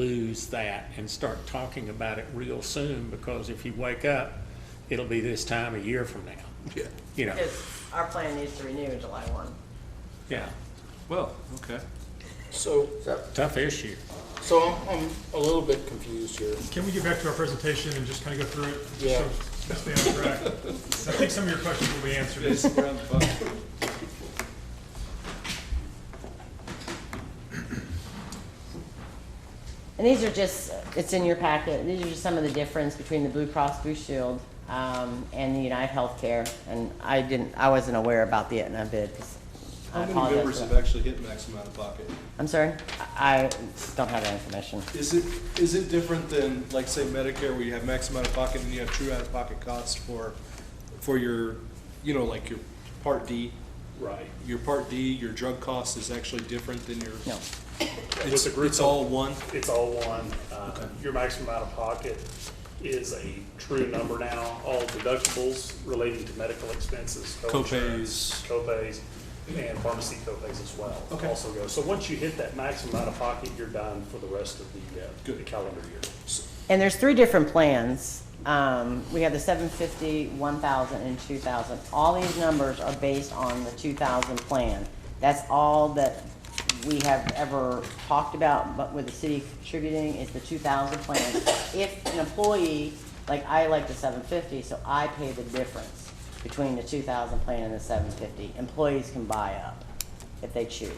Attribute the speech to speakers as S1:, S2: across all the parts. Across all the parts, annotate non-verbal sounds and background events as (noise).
S1: lose that and start talking about it real soon, because if you wake up, it'll be this time a year from now,
S2: Yeah.
S1: you know,
S3: Because our plan needs to renew in July one.
S1: yeah,
S4: Well, okay.
S2: So,
S1: tough issue.
S2: so I'm, I'm a little bit confused here.
S5: Can we get back to our presentation and just kind of go through it?
S2: Yeah.
S5: So, Stay on track. I think some of your questions will be answered.
S6: (laughs)
S3: And these are just, it's in your packet, these are just some of the difference between the Blue Cross Blue Shield, um, and the United Healthcare. And I didn't, I wasn't aware about the Aetna bid, 'cause I
S6: How many
S3: apologize
S6: members
S3: for
S6: have
S3: that.
S6: actually hit maximum out of pocket?
S3: I'm sorry, I I don't have that information.
S6: Is it, is it different than, like, say Medicare, where you have maximum out of pocket and you have true out of pocket costs for, for your, you know, like your Part D?
S1: Right.
S6: Your Part D, your drug cost is actually different than your.
S3: No.
S6: It's,
S7: With the group
S6: it's all one?
S7: It's all one. Uh, Your maximum out of pocket is a true number now. All deductibles relating to medical expenses, co-insurance, copays, and pharmacy copays as well.
S6: Okay.
S7: Also go. So once you hit that maximum out of pocket, you're done for the rest of the, uh, the calendar year.
S3: And there's three different plans. Um, we have the seven fifty, one thousand, and two thousand. All these numbers are based on the two thousand plan. That's all that we have ever talked about, but with the city contributing is the two thousand plan. If an employee, like I like the seven fifty, so I pay the difference between the two thousand plan and the seven fifty. Employees can buy up if they choose.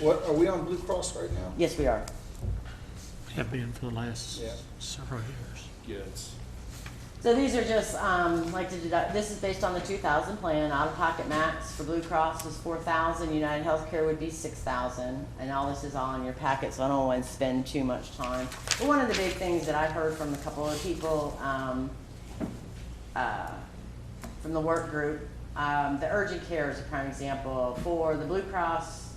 S2: What, are we on Blue Cross right now?
S3: Yes, we are.
S1: Have been for the last
S2: Yeah.
S1: several years.
S6: Yeah, it's.
S3: So these are just, um, like to deduct, this is based on the two thousand plan, out-of-pocket max for Blue Cross was four thousand, United Healthcare would be six thousand, and all this is all in your packet, so I don't wanna spend too much time. But one of the big things that I've heard from a couple of people, um, uh, from the work group, um, the urgent care is a prime example for the Blue Cross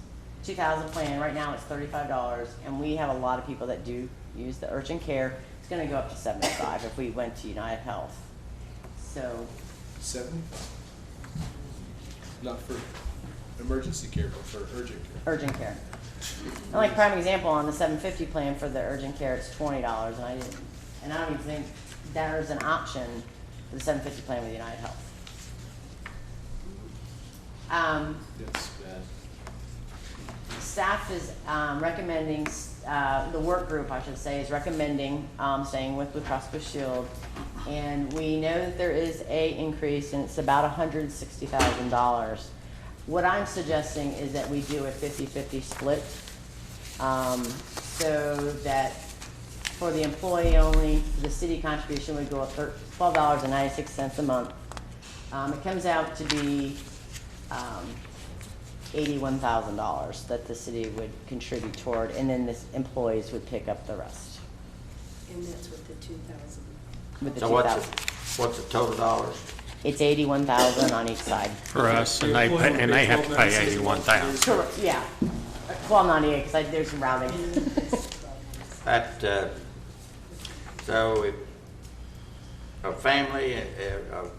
S3: two thousand plan, right now it's thirty-five dollars, and we have a lot of people that do use the urgent care. It's gonna go up to seventy-five if we went to United Health. So,
S6: Seven? Not for emergency care, but for urgent care.
S3: urgent care. And like prime example, on the seven fifty plan for the urgent care, it's twenty dollars, and I didn't, and I don't even think there's an option for the seven fifty plan with United Health. Um,
S6: That's bad.
S3: Staff is um, recommending, uh, the work group, I should say, is recommending um, staying with Blue Cross Blue Shield. And we know that there is a increase, and it's about $160,000. What I'm suggesting is that we do a 50/50 split, um, so that for the employee only, the city contribution would go up thir- $12.96 a month. Um, It comes out to be um, eighty-one thousand dollars that the city would contribute toward, and then the employees would pick up the rest
S8: And that's with the two thousand.
S3: with the
S9: So
S3: two
S9: what's, the-
S3: thousand.
S9: what's the total dollars?
S3: It's eighty-one thousand on each side.
S1: For us, and they, pay- and they have to pay eighty-one thousand.
S3: Correct, yeah. Twelve ninety-eight, because I, there's some rounding.
S9: That, uh, so if a family, uh, a, a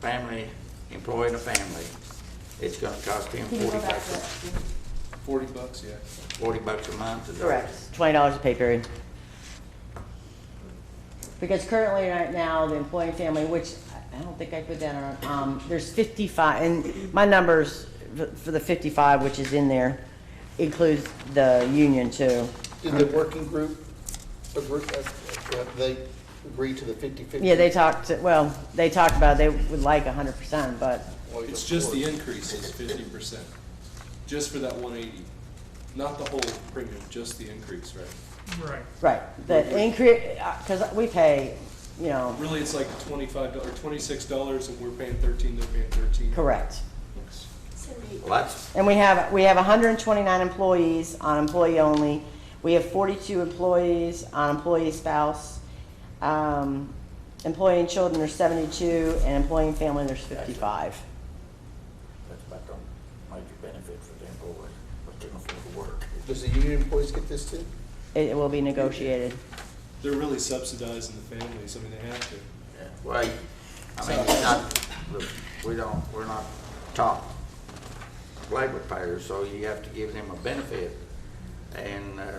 S9: family, employing a family, it's gonna cost him forty bucks,
S6: Forty bucks, yeah.
S9: forty bucks a month? is that-
S3: Correct, twenty dollars a pay period. Because currently, right now, the employee family, which I- I don't think I put that on, um, there's fifty-five, and my numbers f- for the fifty-five, which is in there, includes the union too.
S2: Did the working group, agree- uh, uh, they agree to the fifty-fifty?
S3: Yeah, they talked, well, they talked about they would like hundred percent, but
S6: It's just the increase is fifty percent, just for that one eighty, not the whole premium, just the increase, right?
S5: Right.
S3: right, the increase because we pay, you know,
S6: Really, it's like twenty-five or twenty-six dollars, and we're paying thirteen, they're paying thirteen.
S3: correct.
S8: Cindy,
S9: Well, that's,
S3: And we have we have 129 employees on employee only. We have 42 employees on employee spouse. Um, employee and children there's 72, and employee and family there's 55.
S9: that's about the major benefit for the employee, but they can afford to work.
S2: Does the union employees get this too?
S3: It, it will be negotiated.
S6: They're really subsidizing the families, I mean, they have to.
S9: Yeah. Well, you- I mean, it's not, look, we don't, we're not top labor payers, so you have to give them a benefit. And, uh,